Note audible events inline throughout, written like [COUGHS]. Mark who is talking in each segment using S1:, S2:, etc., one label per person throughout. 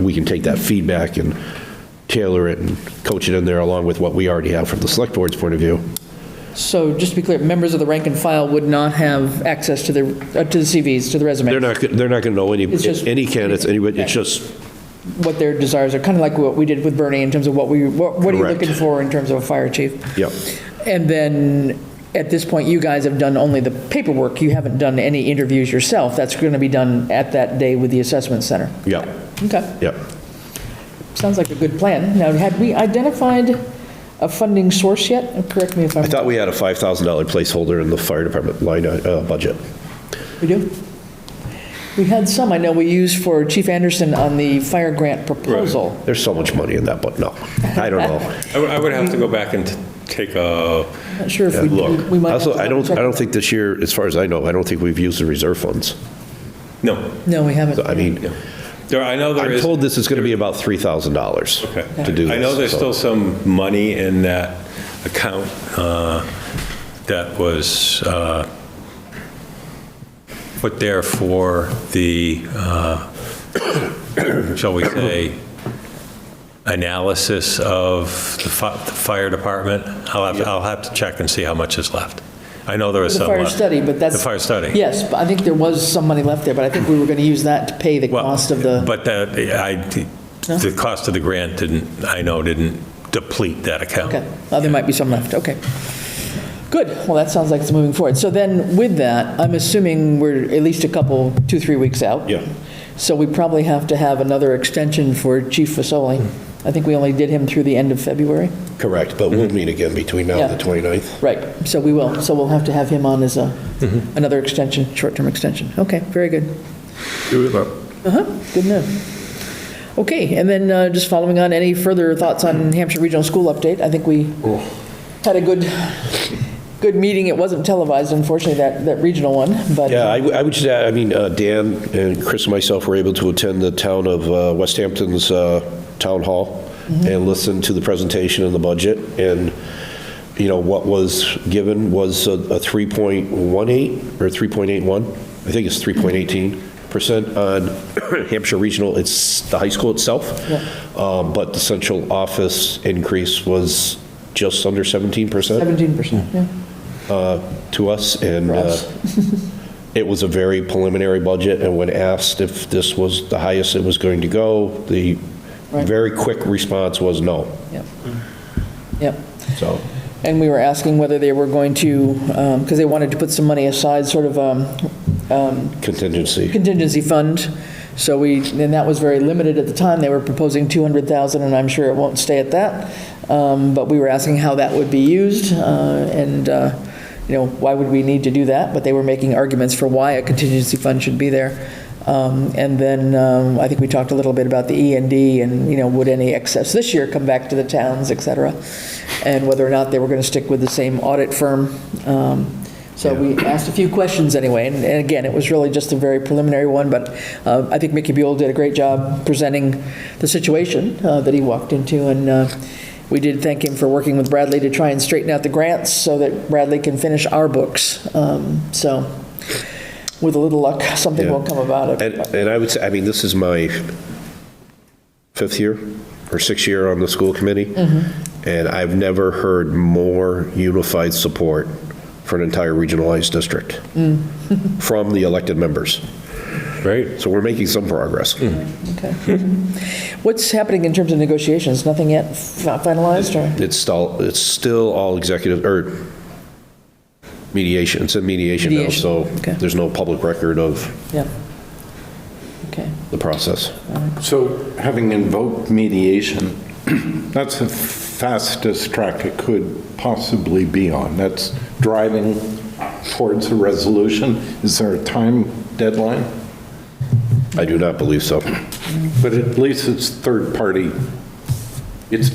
S1: we can take that feedback and tailor it and coach it in there along with what we already have from the select board's point of view.
S2: So just to be clear, members of the rank and file would not have access to the, uh, to the CVs, to the
S1: They're
S2: resumes,
S1: not, they're not going to know any,
S2: It's just-
S1: any candidates, anybody, it's
S2: Yeah.
S1: just,
S2: what their desires are, kind of like what we did with Bernie in terms of what we, what what are you
S1: Correct.
S2: looking for in terms of a fire chief?
S1: Yep.
S2: And then, at this point, you guys have done only the paperwork, you haven't done any interviews yourself, that's going to be done at that day with the assessment center.
S1: yeah,
S2: Okay,
S1: yeah.
S2: sounds like a good plan. Now, had we identified a funding source yet? Correct me if I'm,
S1: I thought we had a $5,000 placeholder in the fire department line, uh, budget.
S2: we do? We had some, I know we used for Chief Anderson on the fire grant proposal.
S1: There's so much money in that, but no, I don't know.
S3: I would- I would have to go back and t- take a,
S2: Not sure if [LAUGHS] we,
S1: Look,
S2: we might. have
S1: also,
S2: to
S1: I don't, I
S2: check.
S1: don't think this year, as far as I know, I don't think we've used the reserve funds.
S3: no,
S2: No, we haven't.
S1: So, I mean,
S3: there, I know there
S1: I'm
S3: is.
S1: told this is going to be about $3,000
S3: Okay.
S1: to do this.
S3: I know there's
S1: so-
S3: still some money in that account uh, that was uh, put there for the, uh, [COUGHS] shall we say, analysis of the fi- the fire department. I'll have, I'll have to check and see how much is left. I know there is
S2: The
S3: some
S2: fire
S3: left.
S2: study, but that's.
S3: The fire study.
S2: Yes, but I think there was some money left there, but I think we were going to use that to pay the
S3: Well,
S2: cost of the,
S3: But that, I, the cost of the grant didn't, I know, didn't deplete that account.
S2: okay, well, there might be some left, okay. Good, well, that sounds like it's moving forward. So then with that, I'm assuming we're at least a couple, two, three weeks out.
S1: Yeah.
S2: So we probably have to have another extension for Chief Fasoli. I think we only did him through the end of February.
S1: Correct, but
S3: Mhm.
S1: we'll meet again between now and
S2: Yeah.
S1: the 29th.
S2: Right, so we will, so we'll have to have him on as a, another extension, short-term extension. Okay, very good. Uh-huh, good enough. Okay, and then uh, just following on, any further thoughts on Hampshire Regional School update? I think we had a good, good meeting. It wasn't televised, unfortunately, that, that regional one, but.
S1: Yeah, I w- I would just add, I mean, uh, Dan and Chris and myself were able to attend the town of uh, West Hampton's uh, town hall and listen to the presentation and the budget. And, you know, what was given was a a 3.18 or 3.81, I think it's 3.18% on [COUGHS] Hampshire Regional, it's the high school itself. Um, But the central office increase was just under 17%
S2: 17%, yeah.
S1: to us, and uh, [LAUGHS] it was a very preliminary budget, and when asked if this was the highest it was going to go, the
S2: Right.
S1: very quick response was no,
S2: Yep. Yep.
S1: so.
S2: And we were asking whether they were going to, because they wanted to put some money aside, sort of um,
S1: Contingency,
S2: contingency fund. So we, and that was very limited at the time. They were proposing 200,000, and I'm sure it won't stay at that. Um, But we were asking how that would be used, uh, and, uh, you know, why would we need to do that? But they were making arguments for why a contingency fund should be there. Um, And then um, I think we talked a little bit about the E and D, and, you know, would any excess this year come back to the towns, et cetera? And whether or not they were going to stick with the same audit firm. Um, so we asked a few questions anyway, and and again, it was really just a very preliminary one, but uh, I think Mickey Buell did a great job presenting the situation uh, that he walked into, and uh, we did thank him for working with Bradley to try and straighten out the grants so that Bradley can finish our books. Um, So with a little luck, something will
S1: Yeah.
S2: come about
S1: and,
S2: it.
S1: and I would say, I mean, this is my fifth year or sixth year on the school committee, and I've never heard more unified support for an entire regionalized district [LAUGHS] from the elected members.
S3: Right.
S1: So we're making some progress.
S2: Okay. What's happening in terms of negotiations? Nothing yet fi- finalized, or?
S1: It's still, it's still all executive, or mediation, it's a mediation now,
S2: Mediation,
S1: so
S2: okay.
S1: there's no public record of
S2: Yeah. Okay.
S1: the process.
S4: So having invoked mediation, [CLEARS THROAT] that's the fastest track it could possibly be on. That's driving towards a resolution. Is there a time deadline?
S1: I do not believe so.
S4: But at least it's third party. It's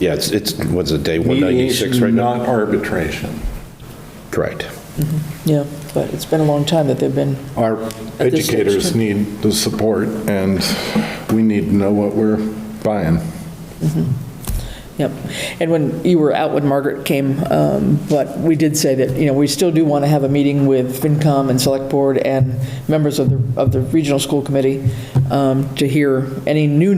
S1: Yeah, it's, it's, what's it, day 196 right
S4: mediation,
S1: now?
S4: not arbitration.
S1: Correct.
S2: Yeah, but it's been a long time that they've been
S4: Our
S2: At this stage,
S4: educators
S2: too.
S4: need the support, and we need to know what we're buying.
S2: Yep. And when you were out when Margaret came, um, but we did say that, you know, we still do want to have a meeting with FinCom and Select Board and members of the, of the Regional School Committee um, to hear any new